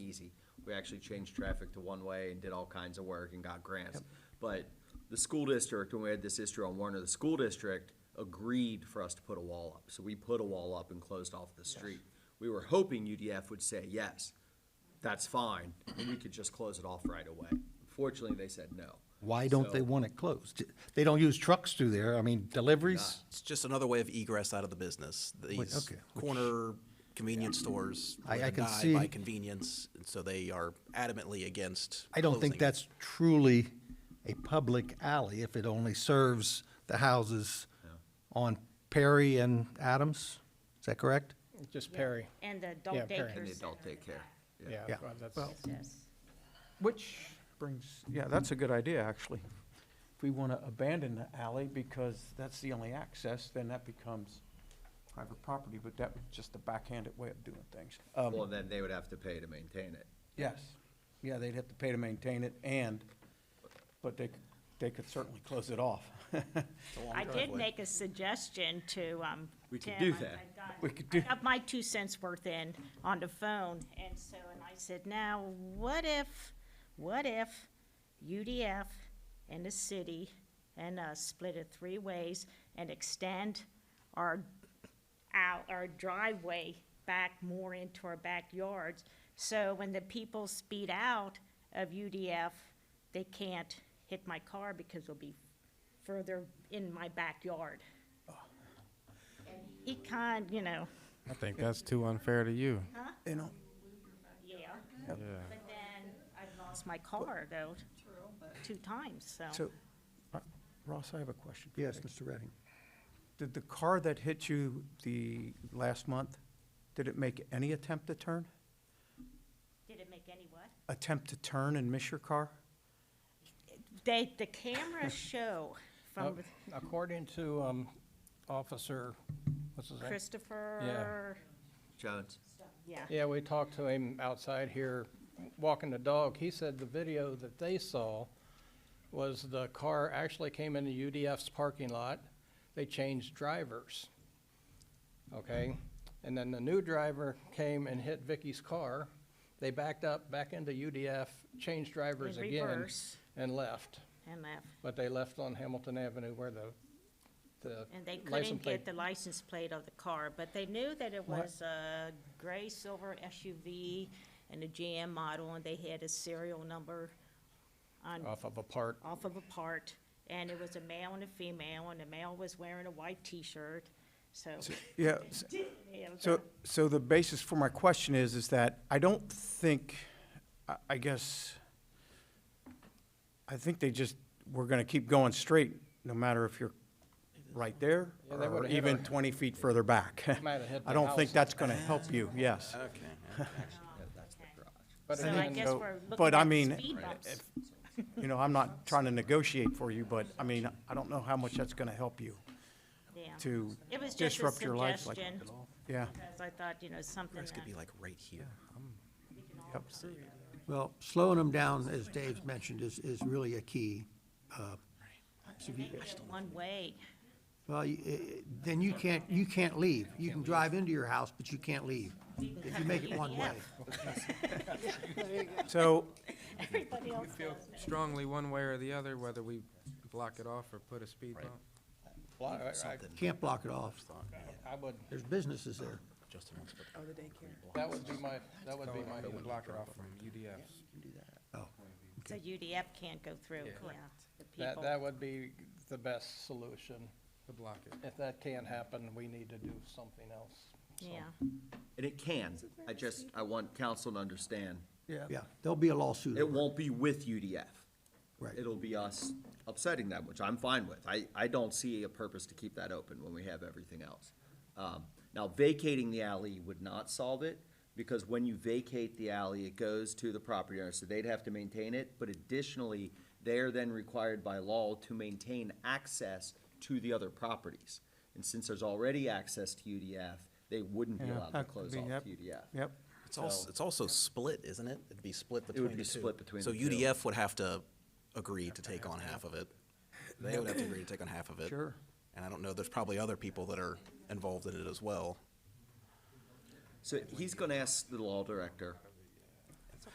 easy. We actually changed traffic to one-way and did all kinds of work and got grants. But the school district, when we had this issue on Warner, the school district agreed for us to put a wall up. So we put a wall up and closed off the street. We were hoping UDF would say, yes, that's fine, and we could just close it off right away. Unfortunately, they said no. Why don't they So- want it closed? They don't use trucks through there, I mean, deliveries? It's just another way of egress out of the business. These okay, which- corner convenience stores I- live I and can die by see- convenience, and so they are adamantly against. I don't think closing. that's truly a public alley if it only serves the houses on Perry and Adams, is that correct? Just Perry, And the Yeah, parent. adult daycare And the center. adult daycare. yeah. Yeah. well, that's- Well, Yes. Which brings, yeah, that's a good idea, actually. If we want to abandon the alley because that's the only access, then that becomes private property, but that was just a backhanded way of doing things. Um, Well, then they would have to pay to maintain it. Yes, yeah, they'd have to pay to maintain it and, but they, c- they could certainly close it off. It's a long I did driveway. make a suggestion to, um. We could Tim. do I- that. I got- We could do- I got my two cents worth in on the phone, and so, and I said, now, what if, what if UDF and the city and us split it three ways and extend our out our driveway back more into our backyards. So when the people speed out of UDF, they can't hit my car because they'll be further in my backyard. He kind, you know, I think that's too unfair to you. You know, yeah, Yeah. but then I've lost my car though, two times, so. so, uh, Ross, I have a question. for you. Mr. Redding. Did the car that hit you the last month, did it make any attempt to turn? Did it make any what? Attempt to turn and miss your car? They, the cameras show Uh, from According to um, Officer, what's his name? Christopher, Jones? yeah. Yeah, we talked to him outside here, walking the dog. He said the video that they saw was the car actually came into UDF's parking lot. They changed drivers. Okay? And then the new driver came and hit Vicky's car. They backed up, back into UDF, changed drivers In again, reverse. and left. And that, But they left on Hamilton Avenue where the, the and they license couldn't plate. get the license plate of the car, but they knew that it What? was a gray silver SUV and a GM model, and they had a serial number on, Off of a part. off of a part, and it was a male and a female, and the male was wearing a white T-shirt, so. Yeah, s- Yeah, it was So, a- so the basis for my question is, is that I don't think, I, I guess, I think they just, we're gonna keep going straight, no matter if you're right there, Yeah, they or would've hit even our- twenty feet further back. Might have hit the I don't think house. that's gonna help you, yes. But So I again, guess So- we're looking but I at mean, the speed bumps. You know, I'm not trying to negotiate for you, but, I mean, I don't know how much that's gonna help you Yeah. to It was just a disrupt your life like. suggestion, Yeah, because I thought, you know, something It's that gonna be like right here. we can all yep. Well, slowing them down, as Dave's mentioned, is, is really a key. uh, so if you- make it one way. Well, you- eh, eh, then you can't, you can't leave. You can drive into your house, but you can't leave if you make it one way. so, Everybody else does. Strongly one way or the other, whether we block it off or put a speed bump. Well, I- I- Can't block it off. I would, There's businesses there. Justin wants to put that would be my, that would be my. We block it off from UDF's. So UDF can't go through, yeah, the That, people. that would be the best solution. to block it. If that can't happen, we need to do something else. Yeah, And it can. I just, I want council to understand, Yeah, there'll be a lawsuit. it won't be with UDF. Right. It'll be us upsetting them, which I'm fine with. I, I don't see a purpose to keep that open when we have everything else. Um, Now, vacating the alley would not solve it, because when you vacate the alley, it goes to the property owner, so they'd have to maintain it. But additionally, they are then required by law to maintain access to the other properties. And since there's already access to UDF, they wouldn't be Yeah, allowed to that could close be- off yep, UDF. yep. It's also, it's also split, isn't it? It'd be split between the be two. split between So the two. UDF would have to agree to take on half of it. They would have to agree to take on half of it. Sure. And I don't know, there's probably other people that are involved in it as well. So he's gonna ask the law director